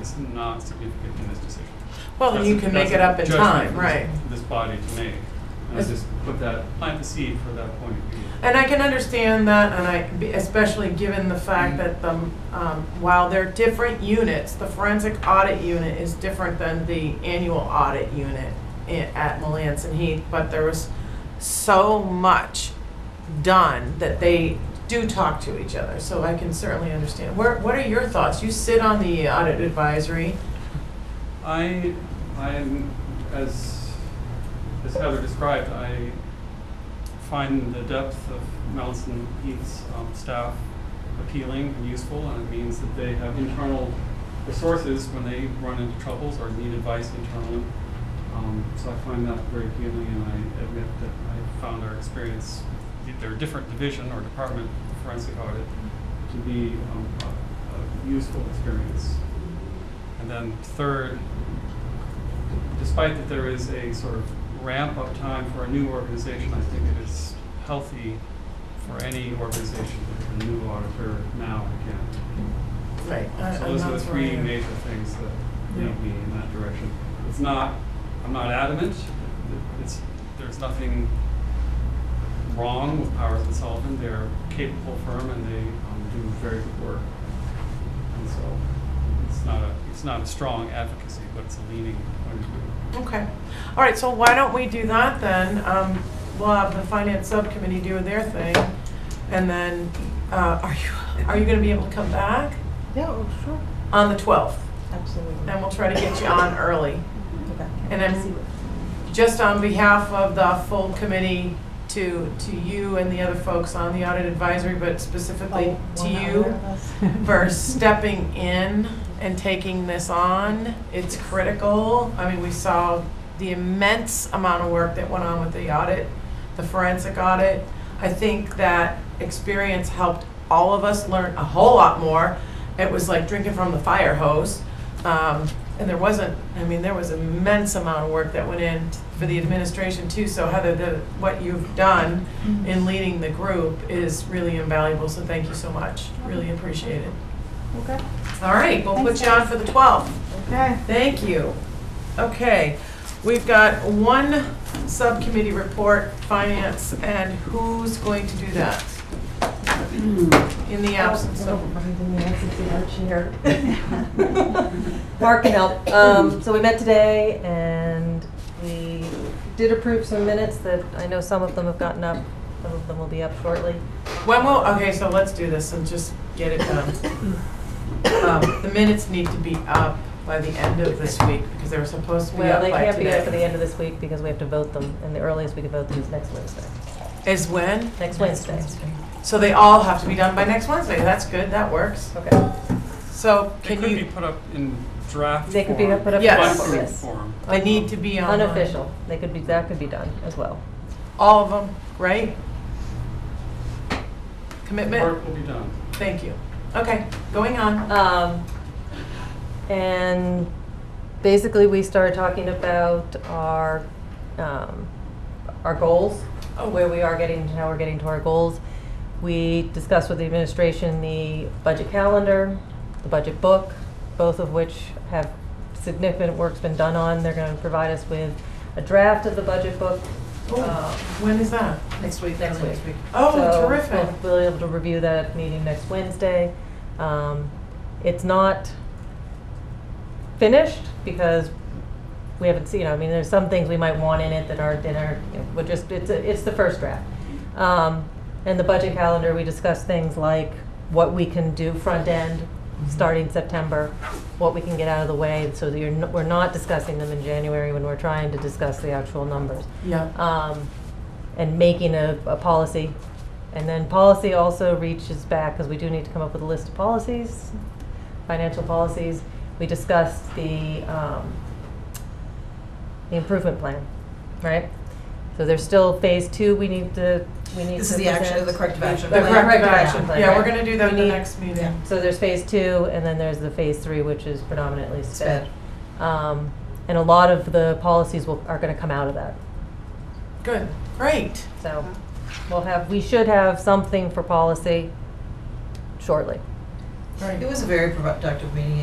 is not significant in this decision. Well, That's you a- can that's make it a up in judgment time, for this- right. This body to make. And I It's- just put that, plant the seed for that point of view. And I can understand that, and I, especially given the fact that the, um, while they're different units, the forensic audit unit is different than the annual audit unit i- at Melanson Heath, but there was so much done that they do talk to each other, so I can certainly understand. Where, what are your thoughts? You sit on the audit advisory. I, I'm, as, as Heather described, I find the depth of Melson Heath's um, staff appealing and useful, and it means that they have internal resources when they run into troubles or need advice internally. Um, so I find that very appealing, and I admit that I found our experience, their different division or department of forensic audit, to be um, a, a useful experience. And then third, despite that there is a sort of ramp up time for a new organization, I think it is healthy for any organization to have a new auditor now and Right. again. So those are the three major things that Yeah. lead me in that direction. It's not, I'm not adamant, it's, there's nothing wrong with Powers and Sullivan, they're a capable firm and they um, do very good work. And so, it's not a, it's not a strong advocacy, but it's a leaning point of view. Okay. All right, so why don't we do that then? Um, We'll have the finance subcommittee do their thing. And then, uh, are you, are you going to be able to come back Yeah, oh, sure, on the 12th? absolutely. And we'll try to get you on early. Okay. And I'm, just on behalf of the full committee to, to you and the other folks on the audit advisory, but specifically to you for stepping in and taking this on. It's critical. I mean, we saw the immense amount of work that went on with the audit, the forensic audit. I think that experience helped all of us learn a whole lot more. It was like drinking from the fire hose. Um, and there wasn't, I mean, there was immense amount of work that went in for the administration too. So Heather, the, what you've done in leading the group is really invaluable. So thank you so much. Really appreciate it. Okay, All right, we'll put you on for the 12th. okay. Thank you. Okay, we've got one subcommittee report, finance, and who's going to do that? In the absence of, Mark can help. Um, so we met today and we did approve some minutes that I know some of them have gotten up, some of them will be up shortly. when will, okay, so let's do this and just get it done. Um, The minutes need to be up by the end of this week because they were supposed to be Well, up they by can't be up for the today. end of this week because we have to vote them and the earliest we could vote them is next Wednesday. Is when? Next Wednesday. So they all have to be done by next Wednesday. That's good, that works. Okay. So They can could be you, put up in draft They could be form, put up in button draft, yes. form. they need to be online. Unofficial. They could be, that could be done as well. All of them, right? Work Commitment? will be done. Thank you. Okay, going on. Um, and basically, we started talking about our um, our goals, where we are getting, how we're getting to our goals. We discussed with the administration the budget calendar, the budget book, both of which have significant work's been done on. They're going to provide us with a draft of the budget book. Oh, um, When is that? Next week, next week. Oh, So terrific. We'll we'll be able to review that at the meeting next Wednesday. Um, It's not finished because we haven't seen, I mean, there's some things we might want in it that aren't in our, you know, we're just, it's, a- it's the first draft. Um, And the budget calendar, we discuss things like what we can do front end, starting September, what we can get out of the way, so that you're, n- we're not discussing them in January when we're trying to discuss the actual numbers Yeah. um, and making a, a policy. And then policy also reaches back, because we do need to come up with a list of policies, financial policies. We discussed the, um, the improvement plan, right? So there's still phase two, we need to, we need to. This is the action present. of the corrective The action The plan. corrective corrective action. action plan, Yeah, right. we're gonna do that in the We need- next meeting. Yeah. So there's phase two, and then there's the phase three, which is predominantly sped. Um, and a lot of the policies will, are gonna come out of that. Good, great. So we'll have, we should have something for policy shortly. Great. It was a very productive meeting,